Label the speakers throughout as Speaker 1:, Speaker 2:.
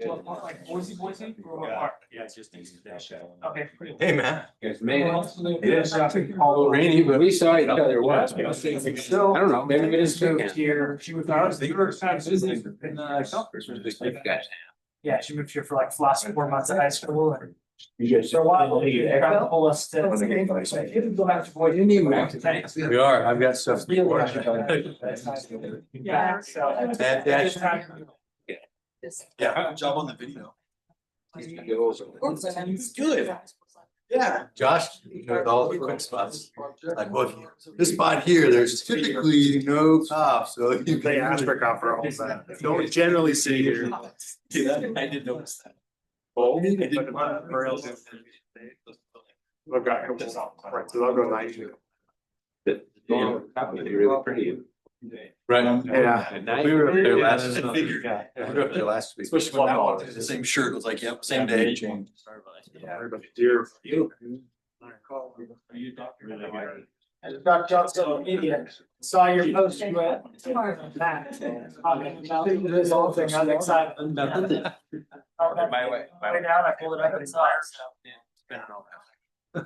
Speaker 1: to a park like Boise, Boise, or a
Speaker 2: Yeah.
Speaker 1: park?
Speaker 2: Yeah, it's just east of that.
Speaker 1: Okay, pretty.
Speaker 3: Hey, man.
Speaker 4: Guys made it.
Speaker 1: It
Speaker 4: is. Rainy, but we saw each other once. I don't know, maybe we just moved here.
Speaker 1: She was, I was, you were kind of busy in, uh, yeah, she moved here for like the last four months of high school and
Speaker 4: You
Speaker 1: for a while, she tried to pull us to.
Speaker 2: Well, they get advice.
Speaker 1: Like, You can go back to Boise.
Speaker 4: didn't even have to.
Speaker 1: Thanks.
Speaker 3: We are. I've got stuff.
Speaker 1: Really?
Speaker 3: to
Speaker 1: Yeah, so.
Speaker 3: That- that-
Speaker 1: Just time-
Speaker 3: Yeah.
Speaker 2: Good job on the video.
Speaker 5: It's
Speaker 2: good. Yeah.
Speaker 3: Josh, you know, all the quick spots. Like, look, this spot here, there's typically no cop, so. you can
Speaker 6: They ask for cop for all that. Don't generally see here.
Speaker 2: Yeah, I did notice that. I didn't want to-
Speaker 6: Or else if I've got. Right, so I'll go night.
Speaker 4: Really pretty.
Speaker 3: Right.
Speaker 6: Yeah.
Speaker 3: We were up there last.
Speaker 2: I figured.
Speaker 3: We were up there last week.
Speaker 2: Especially when that one did the same shirt, it was like, yep, same day.
Speaker 6: Yeah, everybody, dear.
Speaker 2: Are you a doctor?
Speaker 1: And Dr. Johnson, idiot, saw your post, you went.
Speaker 5: Tomorrow.
Speaker 1: That. This whole thing, I was excited. My
Speaker 2: way, my
Speaker 1: Right now, I pulled it up and saw it,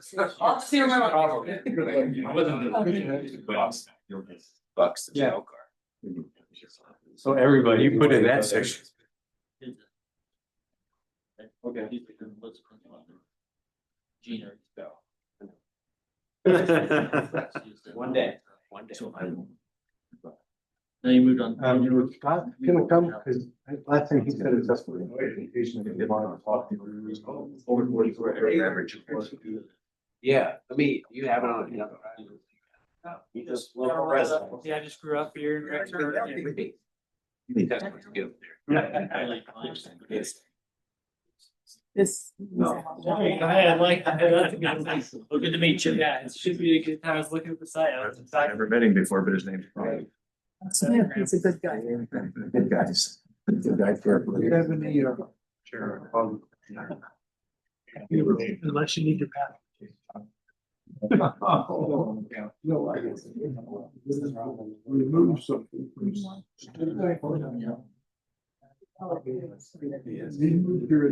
Speaker 1: so.
Speaker 5: I'll see you tomorrow.
Speaker 2: Bucks.
Speaker 3: Yeah.
Speaker 2: car.
Speaker 3: So everybody, you put in that section.
Speaker 2: Okay.
Speaker 7: Gina.
Speaker 2: One day.
Speaker 7: One day.
Speaker 2: So
Speaker 7: Now you moved on.
Speaker 6: Um, you were not gonna come, cause last time he said it's just. Over forty four area average.
Speaker 4: Yeah, I mean, you have it on, you know.
Speaker 2: You just
Speaker 1: Yeah,
Speaker 2: love resident.
Speaker 1: Yeah, I just grew up here. in Rancho Dominguez.
Speaker 7: I like mine.
Speaker 2: Yes.
Speaker 5: This.
Speaker 1: I like that.
Speaker 7: Well, good to meet you.
Speaker 1: Yeah, it should be a good, I was looking at the site, I was
Speaker 6: I've
Speaker 1: excited.
Speaker 6: never met him before, but his name's.
Speaker 5: Smith, he's a good guy.
Speaker 6: Good guys. Good guy for. You have any, uh. Sure. Unless you need your pad. No, I guess. Remove something. from-
Speaker 5: Oh, yes.
Speaker 6: Yes. Remove your